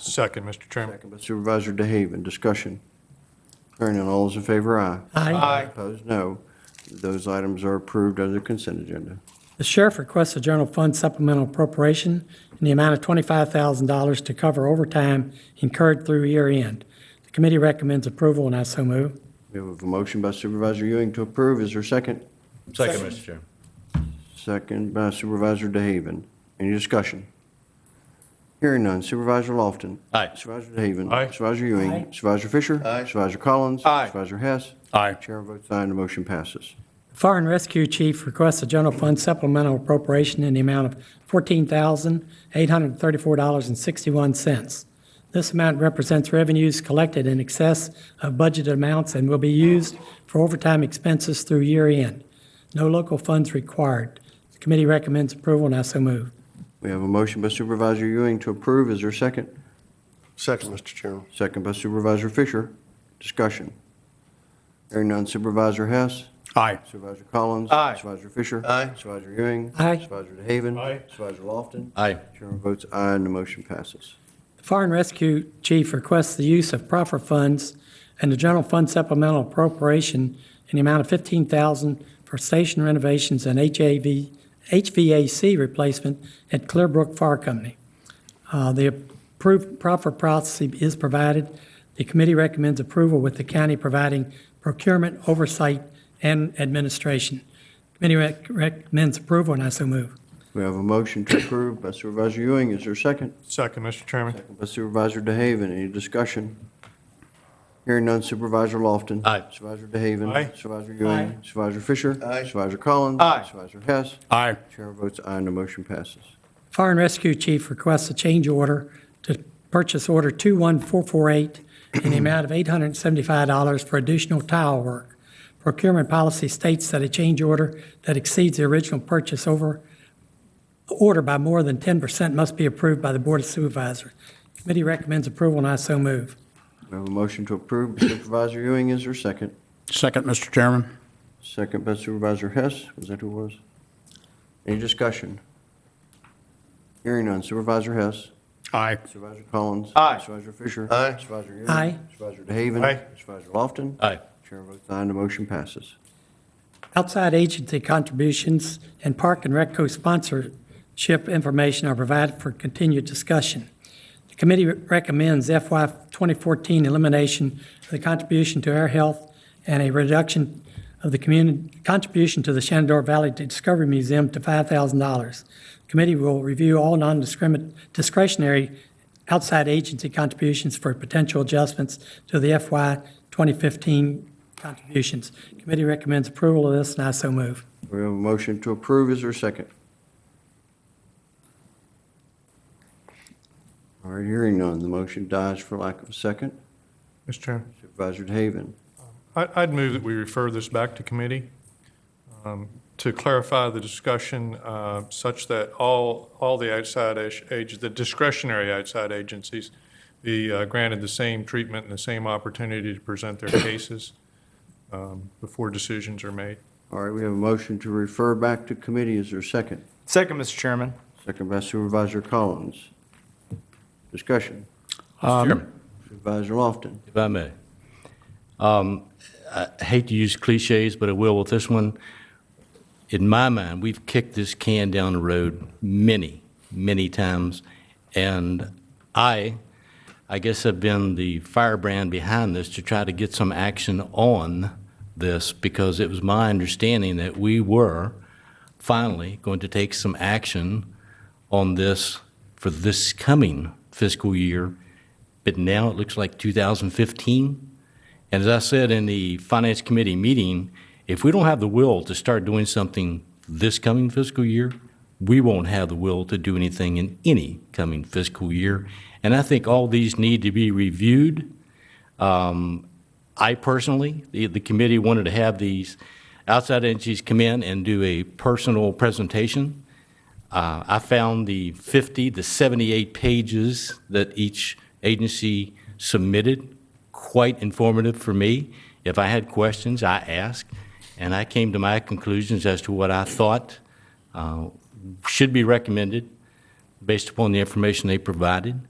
Second, Mr. Chairman. Second by Supervisor DeHaven, discussion. Hearing none, all those in favor, aye. Aye. Opposed, no. Those items are approved under consent agenda. The sheriff requests a general fund supplemental appropriation in the amount of $25,000 to cover overtime incurred through year end. The committee recommends approval, and I so move. We have a motion by Supervisor Ewing to approve, is there a second? Second, Mr. Chairman. Second by Supervisor DeHaven, any discussion? Hearing none, Supervisor Lofton. Aye. Supervisor DeHaven. Aye. Supervisor Ewing. Aye. Supervisor Fisher. Aye. Supervisor Collins. Aye. Supervisor Hess. Aye. Chair votes aye, and the motion passes. Fire and Rescue Chief requests a general fund supplemental appropriation in the amount of $14,834.61. This amount represents revenues collected in excess of budgeted amounts and will be used for overtime expenses through year end. No local funds required. The committee recommends approval, and I so move. We have a motion by Supervisor Ewing to approve, is there a second? Second, Mr. Chairman. Second by Supervisor Fisher. Discussion. Hearing none, Supervisor Hess. Aye. Supervisor Collins. Aye. Supervisor Fisher. Aye. Supervisor Ewing. Aye. Supervisor DeHaven. Aye. Supervisor Lofton. Aye. Chairman votes aye, and the motion passes. The Fire and Rescue Chief requests the use of proper funds and the general fund supplemental appropriation in the amount of fifteen thousand for station renovations and HAV, HVAC replacement at Clearbrook Fire Company. Uh, the approved proper process is provided. The committee recommends approval with the county providing procurement oversight and administration. Committee rec- recommends approval, and I so move. We have a motion to approve by Supervisor Ewing, is there a second? Second, Mr. Chairman. Second by Supervisor DeHaven, any discussion? Hearing none, Supervisor Lofton. Aye. Supervisor DeHaven. Aye. Supervisor Ewing. Aye. Supervisor Fisher. Aye. Supervisor Collins. Aye. Supervisor Hess. Aye. Chair votes aye, and the motion passes. Fire and Rescue Chief requests a change order to purchase order 21448 in the amount of $875 for additional tile work. Procurement policy states that a change order that exceeds the original purchase over, order by more than 10% must be approved by the Board of Supervisors. Committee recommends approval, and I so move. We have a motion to approve by Supervisor Ewing, is there a second? Second, Mr. Chairman. Second by Supervisor Hess, was that who it was? Any discussion? Hearing none, Supervisor Hess. Aye. Supervisor Collins. Aye. Supervisor Fisher. Aye. Supervisor Ewing. Aye. Supervisor DeHaven. Aye. Supervisor Lofton. Aye. Chair votes aye, and the motion passes. Outside agency contributions and Park and Rec co-sponsorship information are provided for continued discussion. The committee recommends FY 2014 elimination of the contribution to air health and a reduction of the community, contribution to the Shenandoah Valley Discovery Museum to $5,000. The Committee will review all non-discrimin- discretionary outside agency contributions for potential adjustments to the FY 2015 contributions. Committee recommends approval of this, and I so move. We have a motion to approve, is there a second? All right, hearing none, the motion dies for lack of a second. Mr. Chairman, Supervisor DeHaven. I- I'd move that we refer this back to committee um, to clarify the discussion uh, such that all, all the outside age, the discretionary outside agencies be uh, granted the same treatment and the same opportunity to present their cases um, before decisions are made. All right, we have a motion to refer back to committee, is there a second? Second, Mr. Chairman. Second by Supervisor Collins. Discussion. Mr. Chairman. Supervisor Lofton. Um, If I may. Um, I hate to use cliches, but I will with this one. In my mind, we've kicked this can down the road many, many times, and I, I guess have been the firebrand behind this to try to get some action on this, because it was my understanding that we were finally going to take some action on this for this coming fiscal year, but now it looks like 2015. And as I said in the Finance Committee meeting, if we don't have the will to start doing something this coming fiscal year, we won't have the will to do anything in any coming fiscal year. And I think all these need to be reviewed. Um, I personally, the, the committee wanted to have these outside entities come in and do a personal presentation. Uh, I found the 50, the 78 pages that each agency submitted quite informative for me. If I had questions, I asked, and I came to my conclusions as to what I thought uh, should be recommended based upon the information they provided.